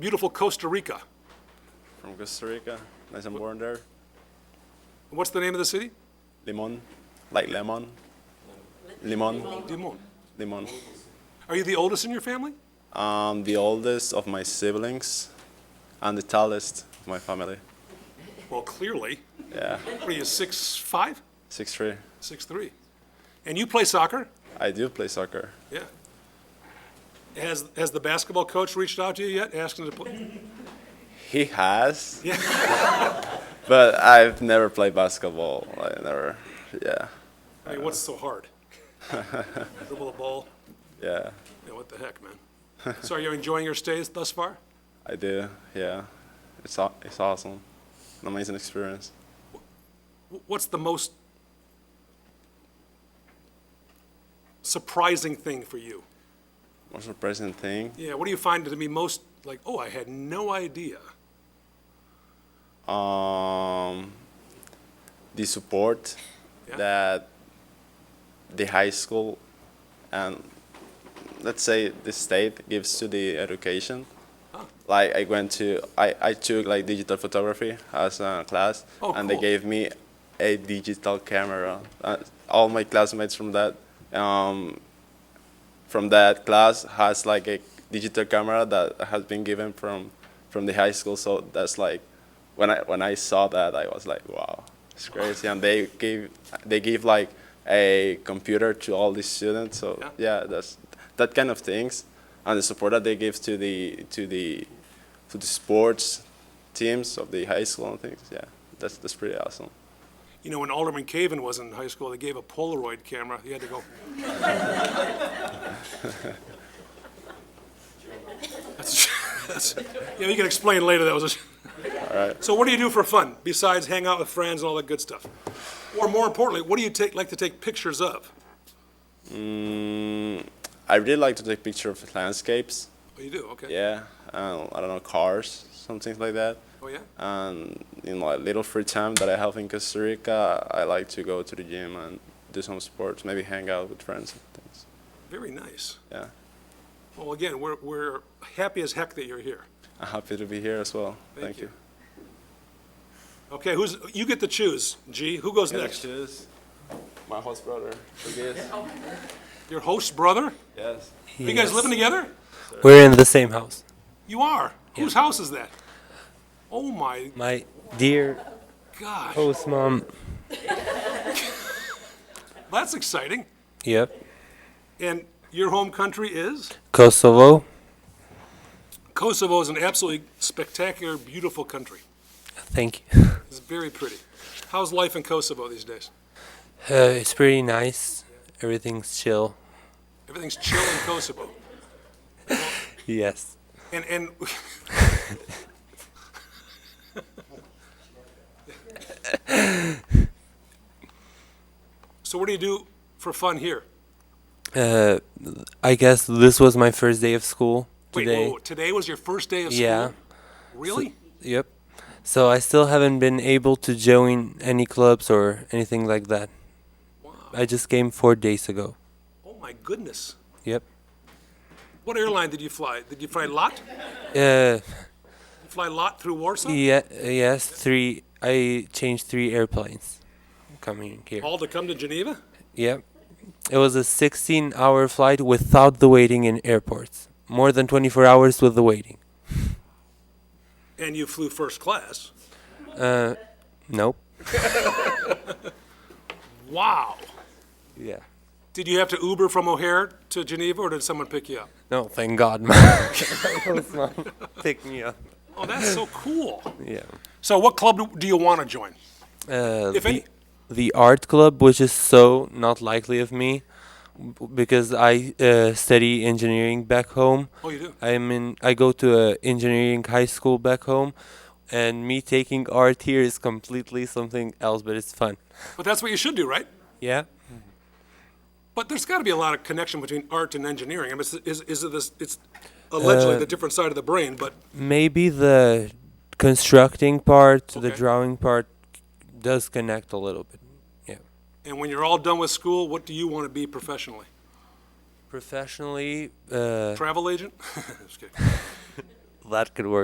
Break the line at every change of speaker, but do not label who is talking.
beautiful Costa Rica.
from Costa Rica. Nice and born there.
What's the name of the city?
Limon, like lemon. Limon,
Dimon.
limon.
Are you the oldest in your family?
I'm the oldest of my siblings and the tallest of my family.
Well, clearly.
Yeah,
What are you, six five,
six three.
six three? And you play soccer?
I do play soccer.
Yeah. Has, has the basketball coach reached out to you yet, asking to play?
He has,
Yeah.
but I've never played basketball. I never. Yeah,
I mean, what's so hard? Dribble the ball,
yeah,
yeah, what the heck, man? So are you enjoying your stays thus far?
I do. Yeah, it's aw- it's awesome. An amazing experience.
Wh- What's the most surprising thing for you?
Most surprising thing.
Yeah, what do you find to be most, like, oh, I had no idea?
um, the support
Yeah.
that the high school and let's say the state gives to the education. Like I went to I, I took like digital photography as a class
Oh,
and
cool.
they gave me a digital camera. Uh, all my classmates from that um, from that class has like a digital camera that has been given from from the high school. So that's like when I when I saw that I was like, wow, it's crazy. And they gave they give like a computer to all the students. So
Yeah.
yeah, that's that kind of things and the support that they give to the to the to the sports teams of the high school and things. Yeah, that's that's pretty awesome.
You know, when Alderman Caven was in high school, they gave a Polaroid camera. He had to go. That's- that's- Yeah, you can explain later. That was a. So what do you do for fun besides hang out with friends and all that good stuff? Or more importantly, what do you take, like to take pictures of?
Mm, I really like to take pictures of landscapes.
Oh, you do, okay.
Yeah, um, I don't know cars, some things like that.
Oh, yeah?
And in like little free time that I have in Costa Rica, I like to go to the gym and do some sports, maybe hang out with friends and things.
Very nice.
Yeah,
Well, again, we're, we're happy as heck that you're here.
I'm happy to be here as well.
Thank
Thank,
you.
you.
Okay, who's, you get to choose, G. Who goes next?
my host brother.
Your host brother?
Yes.
Are you guys
Yes.
living together?
We're in the same house.
You are? Whose house is that? Oh my
My dear
gosh,
host mom.
that's exciting.
Yep.
And your home country is?
Kosovo.
Kosovo is an absolutely spectacular, beautiful country.
Thank you.
It's very pretty. How's life in Kosovo these days?
Uh, it's pretty nice. Everything's chill.
Everything's chill in Kosovo.
Yes.
And, and, so what do you do for fun here?
Uh, I guess this was my first day of school
Wait,
today.
whoa, today was your first day of school?
yeah.
Really?
Yep. So I still haven't been able to join any clubs or anything like that. I just came four days ago.
Oh my goodness.
Yep.
What airline did you fly? Did you fly LOT?
Uh,
You fly LOT through Warsaw?
yeah. Yes. Three. I changed three airplanes. Coming here.
All to come to Geneva?
Yep. It was a 16 hour flight without the waiting in airports. More than 24 hours with the waiting.
And you flew first class?
Nope.
Wow.
Yeah.
Did you have to Uber from O'Hare to Geneva or did someone pick you up?
No, thank God, man. Pick me up.
Oh, that's so cool.
Yeah.
So what club do- do you want to join?
Uh,
If
the,
any.
the art club, which is so not likely of me b- because I uh, study engineering back home.
Oh, you do?
I'm in. I go to a engineering high school back home, and me taking art here is completely something else, but it's fun.
But that's what you should do, right?
Yeah.
But there's got to be a lot of connection between art and engineering. I mean, it's, is, is it this, it's allegedly the different side of the brain, but
Maybe the constructing part, the
Okay.
drawing part does connect a little bit. Yeah.
and when you're all done with school, what do you want to be professionally?
Professionally, uh,
Travel agent? Just kidding.
that could work.